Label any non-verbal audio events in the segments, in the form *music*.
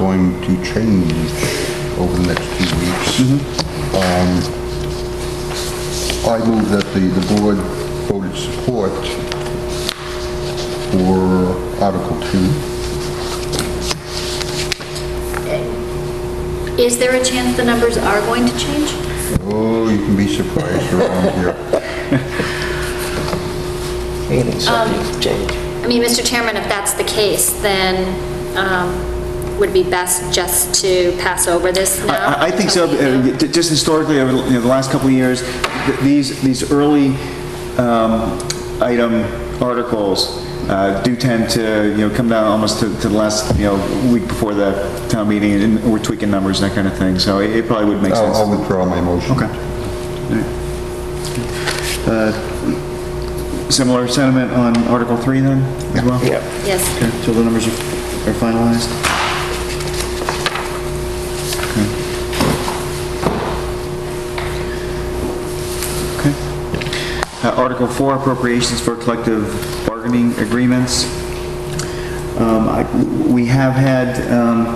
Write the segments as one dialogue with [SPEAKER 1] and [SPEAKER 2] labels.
[SPEAKER 1] going to change over the next few weeks. Mm-hmm. Um, I move that the, the board voted support for Article 2.
[SPEAKER 2] Is there a chance the numbers are going to change?
[SPEAKER 1] Oh, you can be surprised *laughs* around here.
[SPEAKER 3] Meaning
[SPEAKER 4] Um,
[SPEAKER 3] something changed.
[SPEAKER 2] I mean, Mr. Chairman, if that's the case, then um, would it be best just to pass over this now?
[SPEAKER 5] I I think so, uh, j- just historically, over you know, the last couple of years, th- these, these early um, item articles uh, do tend to, you know, come down almost to to the last, you know, week before the town meeting, and we're tweaking numbers and that kind of thing, so it it probably would make
[SPEAKER 1] I'll
[SPEAKER 5] sense.
[SPEAKER 1] I'll withdraw my motion.
[SPEAKER 5] Okay. Uh, Similar sentiment on Article 3 then, as well?
[SPEAKER 3] Yeah.
[SPEAKER 2] Yes.
[SPEAKER 5] Okay, till the numbers are are finalized? Okay. Okay. Uh, Article 4, appropriations for collective bargaining agreements. Um, I- We have had um,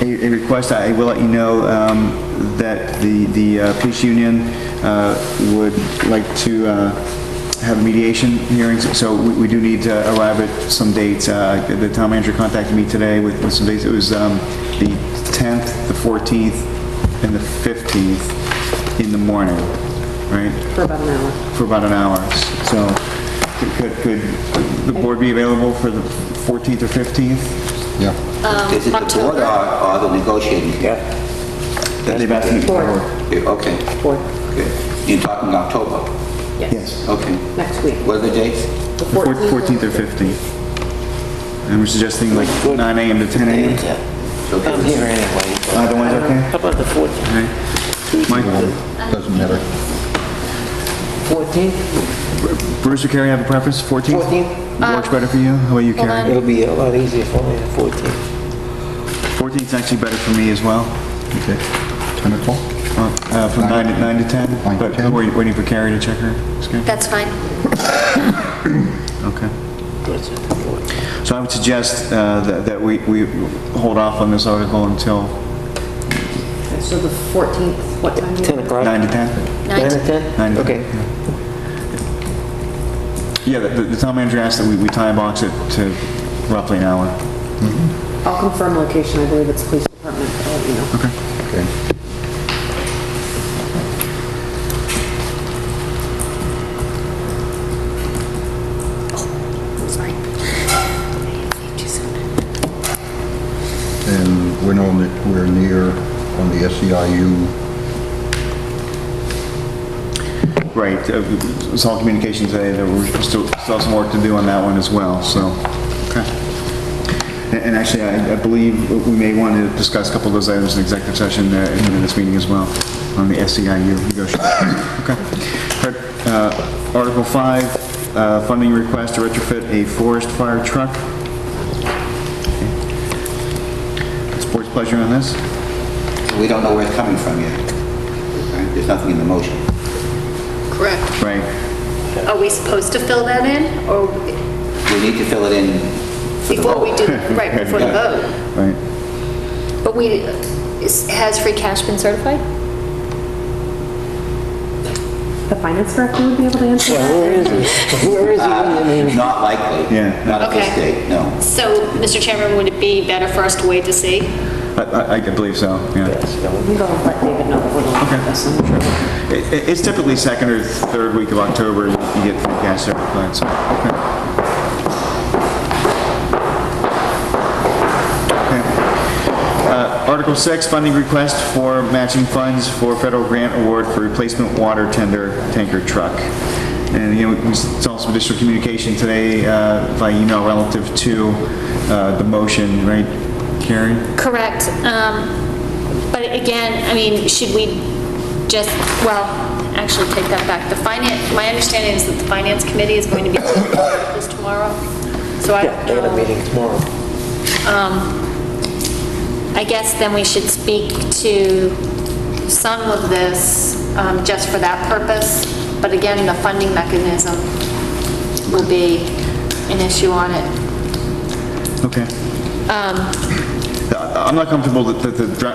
[SPEAKER 5] a a request, I will let you know, um, that the the uh, police union uh, would like to uh, have mediation hearings, so we we do need to elaborate some dates. Uh, The town manager contacted me today with with some dates. It was um, the 10th, the 14th, and the 15th in the morning, right?
[SPEAKER 4] for about an hour.
[SPEAKER 5] for about an hour. So could, could the board be available for the 14th or 15th?
[SPEAKER 1] Yeah.
[SPEAKER 6] Is it the board or, or the negotiating? Yeah.
[SPEAKER 5] They've asked me
[SPEAKER 4] Four.
[SPEAKER 6] Okay,
[SPEAKER 4] Four,
[SPEAKER 6] okay. You're talking October,
[SPEAKER 4] yes,
[SPEAKER 6] okay.
[SPEAKER 4] next week.
[SPEAKER 6] What are the dates?
[SPEAKER 4] The
[SPEAKER 5] Four-
[SPEAKER 4] 14th.
[SPEAKER 5] 14th or 15th. And we're suggesting like 9 AM to 10 AM?
[SPEAKER 3] uh, I'm here anyway.
[SPEAKER 5] Either one's okay?
[SPEAKER 3] How about the 14th?
[SPEAKER 5] Okay. Mike,
[SPEAKER 1] Doesn't matter.
[SPEAKER 3] 14th?
[SPEAKER 5] Bruce or Carrie have a preference, 14th?
[SPEAKER 3] 14th?
[SPEAKER 5] Works better for you? How about you,
[SPEAKER 2] Hold
[SPEAKER 5] Carrie?
[SPEAKER 2] on.
[SPEAKER 4] Um,
[SPEAKER 3] It'll be a lot easier for me, the 14th.
[SPEAKER 5] 14th's actually better for me as well,
[SPEAKER 1] Okay. 10 o'clock?
[SPEAKER 5] uh, from 9 to, 9 to 10.
[SPEAKER 1] Nine to
[SPEAKER 5] But
[SPEAKER 1] 10.
[SPEAKER 5] we're waiting for Carrie to check her schedule.
[SPEAKER 2] That's fine.
[SPEAKER 5] Okay.
[SPEAKER 3] What's it, the 14th?
[SPEAKER 5] So I would suggest uh, that that we we hold off on this article until
[SPEAKER 4] So the 14th, what time?
[SPEAKER 3] 10 o'clock?
[SPEAKER 5] 9 to 10?
[SPEAKER 2] Nine
[SPEAKER 3] 9
[SPEAKER 2] to-
[SPEAKER 3] to 10?
[SPEAKER 5] Nine to
[SPEAKER 3] Okay.
[SPEAKER 5] 10, Yeah, Yeah, the the town manager asked that we we time box it to roughly an hour.
[SPEAKER 4] I'll confirm location, I believe it's police department, I'll let you know.
[SPEAKER 1] Okay.
[SPEAKER 2] Sorry. Too soon.
[SPEAKER 1] And we're on the, we're near on the E SEIU
[SPEAKER 5] Right, uh, it's all communication today, there were still still some work to do on that one as well, so. Okay. And- And actually, I I believe we may want to discuss a couple of those items in executive session uh, in this meeting as well, on the SEIU negotiations. Okay. Uh, Article 5, uh, funding request to retrofit a forest fire truck. It's board's pleasure on this?
[SPEAKER 6] We don't know where it's coming from yet. Right? There's nothing in the motion.
[SPEAKER 2] Correct.
[SPEAKER 5] Right.
[SPEAKER 2] Are we supposed to fill that in, or
[SPEAKER 6] We need to fill it in for the
[SPEAKER 2] before we
[SPEAKER 5] *laughs*
[SPEAKER 6] vote.
[SPEAKER 2] do, right, before the vote?
[SPEAKER 5] Right.
[SPEAKER 2] But we, is- has free cash been certified?
[SPEAKER 4] The finance director would be able to answer
[SPEAKER 3] Yeah,
[SPEAKER 4] that?
[SPEAKER 3] where is it? Where is it? I
[SPEAKER 6] *laughs*
[SPEAKER 3] mean,
[SPEAKER 6] Not likely.
[SPEAKER 5] Yeah.
[SPEAKER 6] Not at this
[SPEAKER 2] Okay.
[SPEAKER 6] date, no.
[SPEAKER 2] So, Mr. Chairman, would it be better for us to wait to see?
[SPEAKER 5] I- I I believe so, yeah.
[SPEAKER 4] We go let David know that we're going to this, I'm sure.
[SPEAKER 5] I- i- It's typically second or third week of October you get free cash certified, so, okay. Okay. Uh, Article 6, funding request for matching funds for federal grant award for replacement water tender tanker truck. And, you know, we saw some additional communication today uh, by email relative to uh, the motion, right, Carrie?
[SPEAKER 2] Correct. um, But again, I mean, should we just, well, actually take that back. The finance, my understanding is that the finance committee is
[SPEAKER 3] *coughs*
[SPEAKER 2] going to be taking this tomorrow. So I
[SPEAKER 3] Yeah, they got a
[SPEAKER 2] don't know.
[SPEAKER 3] meeting tomorrow.
[SPEAKER 2] I guess then we should speak to some of this um, just for that purpose. But again, the funding mechanism will be an issue on it.
[SPEAKER 5] Okay.
[SPEAKER 2] Um,
[SPEAKER 5] The- I- I'm not comfortable that that the dra-